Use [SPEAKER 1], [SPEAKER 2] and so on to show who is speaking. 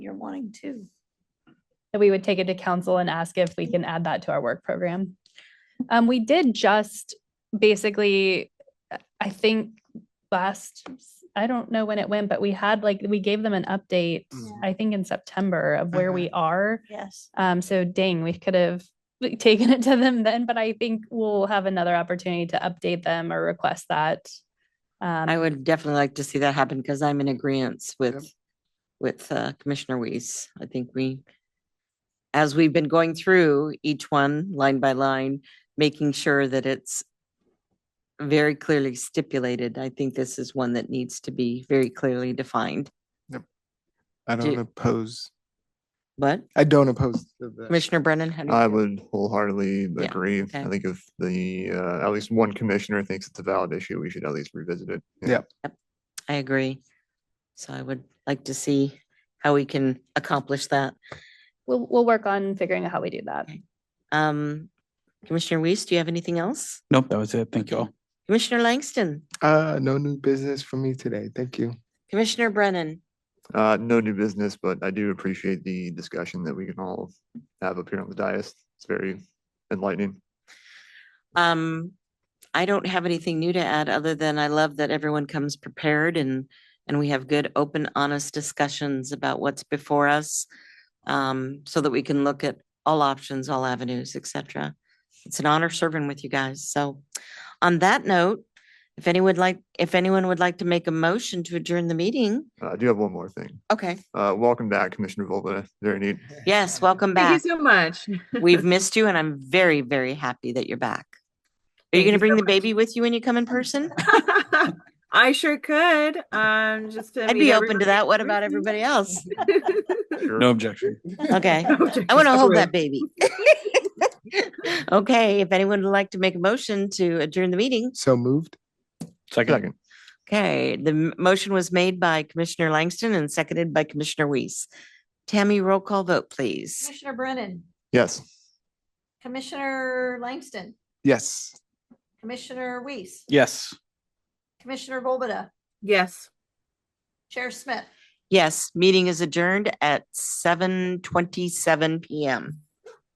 [SPEAKER 1] wanting to.
[SPEAKER 2] that we would take it to council and ask if we can add that to our work program. Um, we did just basically, uh, I think last, I don't know when it went, but we had like, we gave them an update, I think in September of where
[SPEAKER 3] Mm-hmm.
[SPEAKER 2] we are.
[SPEAKER 1] Yes.
[SPEAKER 2] Um, so dang, we could have like, taken it to them then, but I think we'll have another opportunity to update them or request that.
[SPEAKER 3] I
[SPEAKER 2] Um,
[SPEAKER 3] would definitely like to see that happen because I'm in agreement with, with uh, Commissioner Weiss. I think we, as we've been going through each one line by line, making sure that it's very clearly stipulated. I think this is one that needs to be very clearly defined.
[SPEAKER 4] I
[SPEAKER 3] Do-
[SPEAKER 4] don't oppose,
[SPEAKER 3] But
[SPEAKER 4] I don't oppose. to the-
[SPEAKER 3] Commissioner Brennan? how do you
[SPEAKER 5] I
[SPEAKER 3] feel?
[SPEAKER 5] would wholeheartedly
[SPEAKER 3] Yeah,
[SPEAKER 5] agree.
[SPEAKER 3] okay.
[SPEAKER 5] I think if the, uh, at least one commissioner thinks it's a valid issue, we should at least revisit it.
[SPEAKER 4] Yeah.
[SPEAKER 3] I agree. So I would like to see how we can accomplish that.
[SPEAKER 2] we'll, we'll work on figuring out how we do that.
[SPEAKER 3] Um, Commissioner Weiss, do you have anything else?
[SPEAKER 6] Nope, that was it. Thank you all.
[SPEAKER 3] Commissioner Langston,
[SPEAKER 4] Uh, no new business for me today. Thank you.
[SPEAKER 3] Commissioner Brennan,
[SPEAKER 5] Uh, no new business, but I do appreciate the discussion that we can all have up here on the dais. It's very enlightening.
[SPEAKER 3] um, I don't have anything new to add other than I love that everyone comes prepared and, and we have good, open, honest discussions about what's before us. Um, so that we can look at all options, all avenues, et cetera. It's an honor serving with you guys. So on that note, if anyone would like, if anyone would like to make a motion to adjourn the meeting,
[SPEAKER 5] Uh, I do have one more thing.
[SPEAKER 3] okay,
[SPEAKER 5] Uh, welcome back, Commissioner Volbada. Very neat.
[SPEAKER 3] yes, welcome back.
[SPEAKER 7] Thank you so much.
[SPEAKER 3] We've missed you and I'm very, very happy that you're back. Are you going
[SPEAKER 7] Thank
[SPEAKER 3] to
[SPEAKER 7] you
[SPEAKER 3] bring
[SPEAKER 7] so
[SPEAKER 3] the baby with you when you come in person?
[SPEAKER 7] I sure could. Um, just. to
[SPEAKER 3] I'd
[SPEAKER 7] meet
[SPEAKER 3] be open to
[SPEAKER 7] everybody
[SPEAKER 3] that.
[SPEAKER 7] in
[SPEAKER 3] What about
[SPEAKER 7] person.
[SPEAKER 3] everybody else?
[SPEAKER 5] Sure.
[SPEAKER 6] No objection.
[SPEAKER 3] Okay.
[SPEAKER 7] Okay,
[SPEAKER 3] I want to hold
[SPEAKER 7] would.
[SPEAKER 3] that baby. Okay, if anyone would like to make a motion to adjourn the meeting.
[SPEAKER 4] So moved.
[SPEAKER 6] Second.
[SPEAKER 5] Second.
[SPEAKER 3] Okay, the m- motion was made by Commissioner Langston and seconded by Commissioner Weiss. Tammy, roll call vote, please.
[SPEAKER 1] Commissioner Brennan,
[SPEAKER 5] Yes.
[SPEAKER 1] Commissioner Langston,
[SPEAKER 4] Yes.
[SPEAKER 1] Commissioner Weiss,
[SPEAKER 6] Yes.
[SPEAKER 1] Commissioner Volbada,
[SPEAKER 7] Yes.
[SPEAKER 1] Chair Smith.
[SPEAKER 3] Yes, meeting is adjourned at 7:27 PM.